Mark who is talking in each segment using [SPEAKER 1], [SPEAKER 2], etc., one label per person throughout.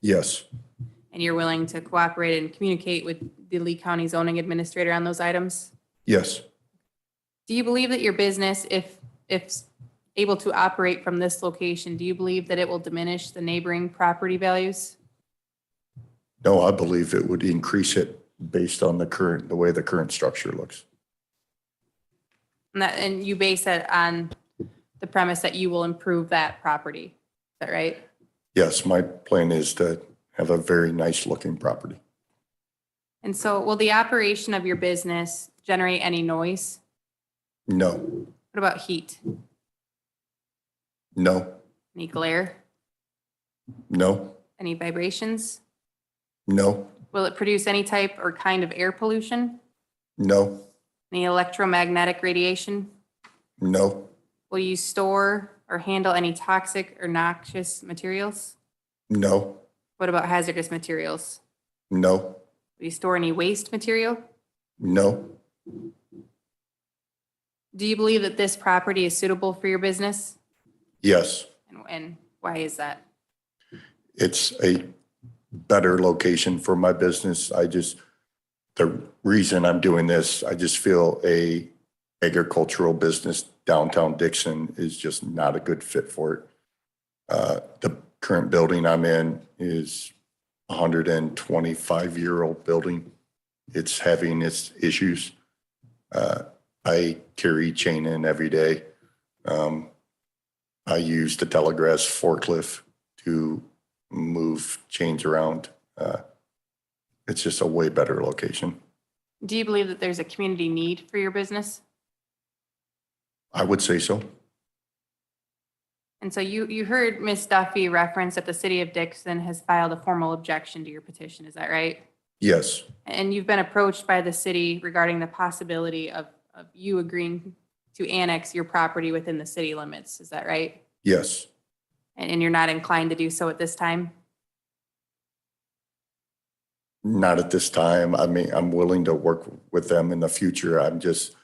[SPEAKER 1] Yes.
[SPEAKER 2] And you're willing to cooperate and communicate with the Lee County zoning administrator on those items?
[SPEAKER 1] Yes.
[SPEAKER 2] Do you believe that your business, if, if able to operate from this location, do you believe that it will diminish the neighboring property values?
[SPEAKER 1] No, I believe it would increase it based on the current, the way the current structure looks.
[SPEAKER 2] And that, and you base it on the premise that you will improve that property, is that right?
[SPEAKER 1] Yes, my plan is to have a very nice looking property.
[SPEAKER 2] And so will the operation of your business generate any noise?
[SPEAKER 1] No,
[SPEAKER 2] What about heat,
[SPEAKER 1] no,
[SPEAKER 2] any glare,
[SPEAKER 1] no,
[SPEAKER 2] any vibrations?
[SPEAKER 1] no,
[SPEAKER 2] Will it produce any type or kind of air pollution,
[SPEAKER 1] no,
[SPEAKER 2] any electromagnetic radiation?
[SPEAKER 1] no,
[SPEAKER 2] Will you store or handle any toxic or noxious materials?
[SPEAKER 1] no,
[SPEAKER 2] What about hazardous materials?
[SPEAKER 1] no,
[SPEAKER 2] Will you store any waste material?
[SPEAKER 1] no,
[SPEAKER 2] Do you believe that this property is suitable for your business?
[SPEAKER 1] yes.
[SPEAKER 2] And- And why is that?
[SPEAKER 1] it's a better location for my business. I just, the reason I'm doing this, I just feel a agricultural business downtown Dixon is just not a good fit for it. Uh, The current building I'm in is a hundred and twenty-five year old building. It's having its issues. Uh, I carry chain in every day. Um, I use the telegrass forklift to move change around. Uh, it's just a way better location.
[SPEAKER 2] Do you believe that there's a community need for your business?
[SPEAKER 1] I would say so.
[SPEAKER 2] And so you, you heard Ms. Duffy reference that the city of Dixon has filed a formal objection to your petition, is that right?
[SPEAKER 1] Yes,
[SPEAKER 2] And you've been approached by the city regarding the possibility of, of you agreeing to annex your property within the city limits, is that right?
[SPEAKER 1] yes,
[SPEAKER 2] And, and you're not inclined to do so at this time?
[SPEAKER 1] not at this time. I mean, I'm willing to work with them in the future. I'm just,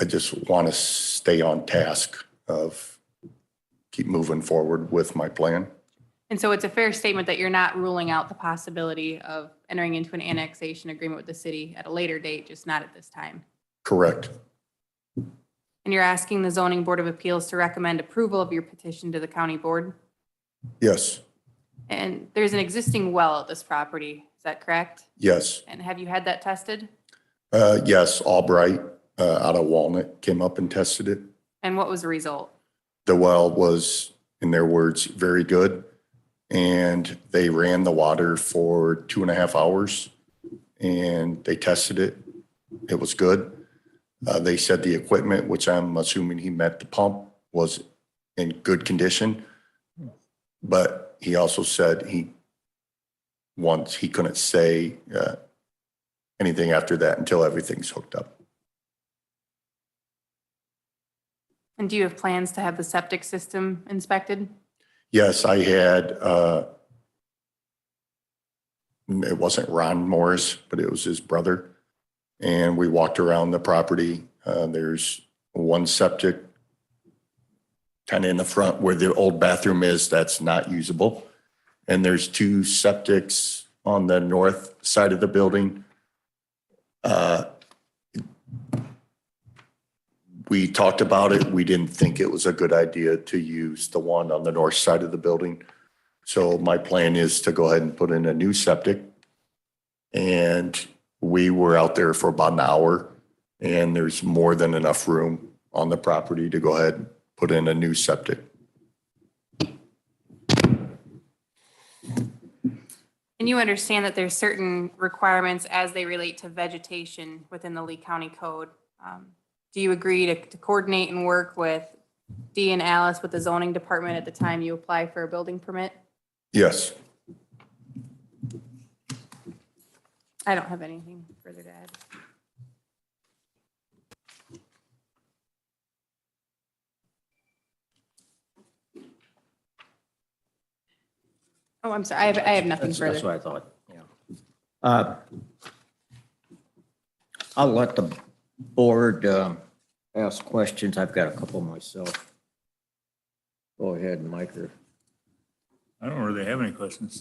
[SPEAKER 1] I just want to stay on task of keep moving forward with my plan.
[SPEAKER 2] And so it's a fair statement that you're not ruling out the possibility of entering into an annexation agreement with the city at a later date, just not at this time.
[SPEAKER 1] Correct.
[SPEAKER 2] And you're asking the zoning board of appeals to recommend approval of your petition to the county board?
[SPEAKER 1] Yes,
[SPEAKER 2] And there's an existing well at this property, is that correct?
[SPEAKER 1] yes,
[SPEAKER 2] And have you had that tested?
[SPEAKER 1] uh, yes. Albright uh, out of Walnut came up and tested it.
[SPEAKER 2] And what was the result?
[SPEAKER 1] the well was, in their words, very good. And they ran the water for two and a half hours and they tested it. It was good. Uh, they said the equipment, which I'm assuming he meant the pump, was in good condition. But he also said he, once, he couldn't say uh, anything after that until everything's hooked up.
[SPEAKER 2] And do you have plans to have the septic system inspected?
[SPEAKER 1] Yes, I had, uh, it wasn't Ron Morris, but it was his brother. And we walked around the property. Uh, There's one septic kind of in the front where the old bathroom is, that's not usable. And there's two septics on the north side of the building. Uh, we talked about it. We didn't think it was a good idea to use the one on the north side of the building. So my plan is to go ahead and put in a new septic. And we were out there for about an hour and there's more than enough room on the property to go ahead and put in a new septic.
[SPEAKER 2] And you understand that there's certain requirements as they relate to vegetation within the Lee County Code. Um, Do you agree to to coordinate and work with Dee and Alice with the zoning department at the time you apply for a building permit?
[SPEAKER 1] Yes,
[SPEAKER 2] I don't have anything further to add. Oh, I'm sorry, I have, I have nothing
[SPEAKER 3] That's, that's
[SPEAKER 2] further.
[SPEAKER 3] what I thought, yeah. Uh, I'll let the board um, ask questions. I've got a couple myself. Go ahead, Mike, or
[SPEAKER 4] I don't really have any questions.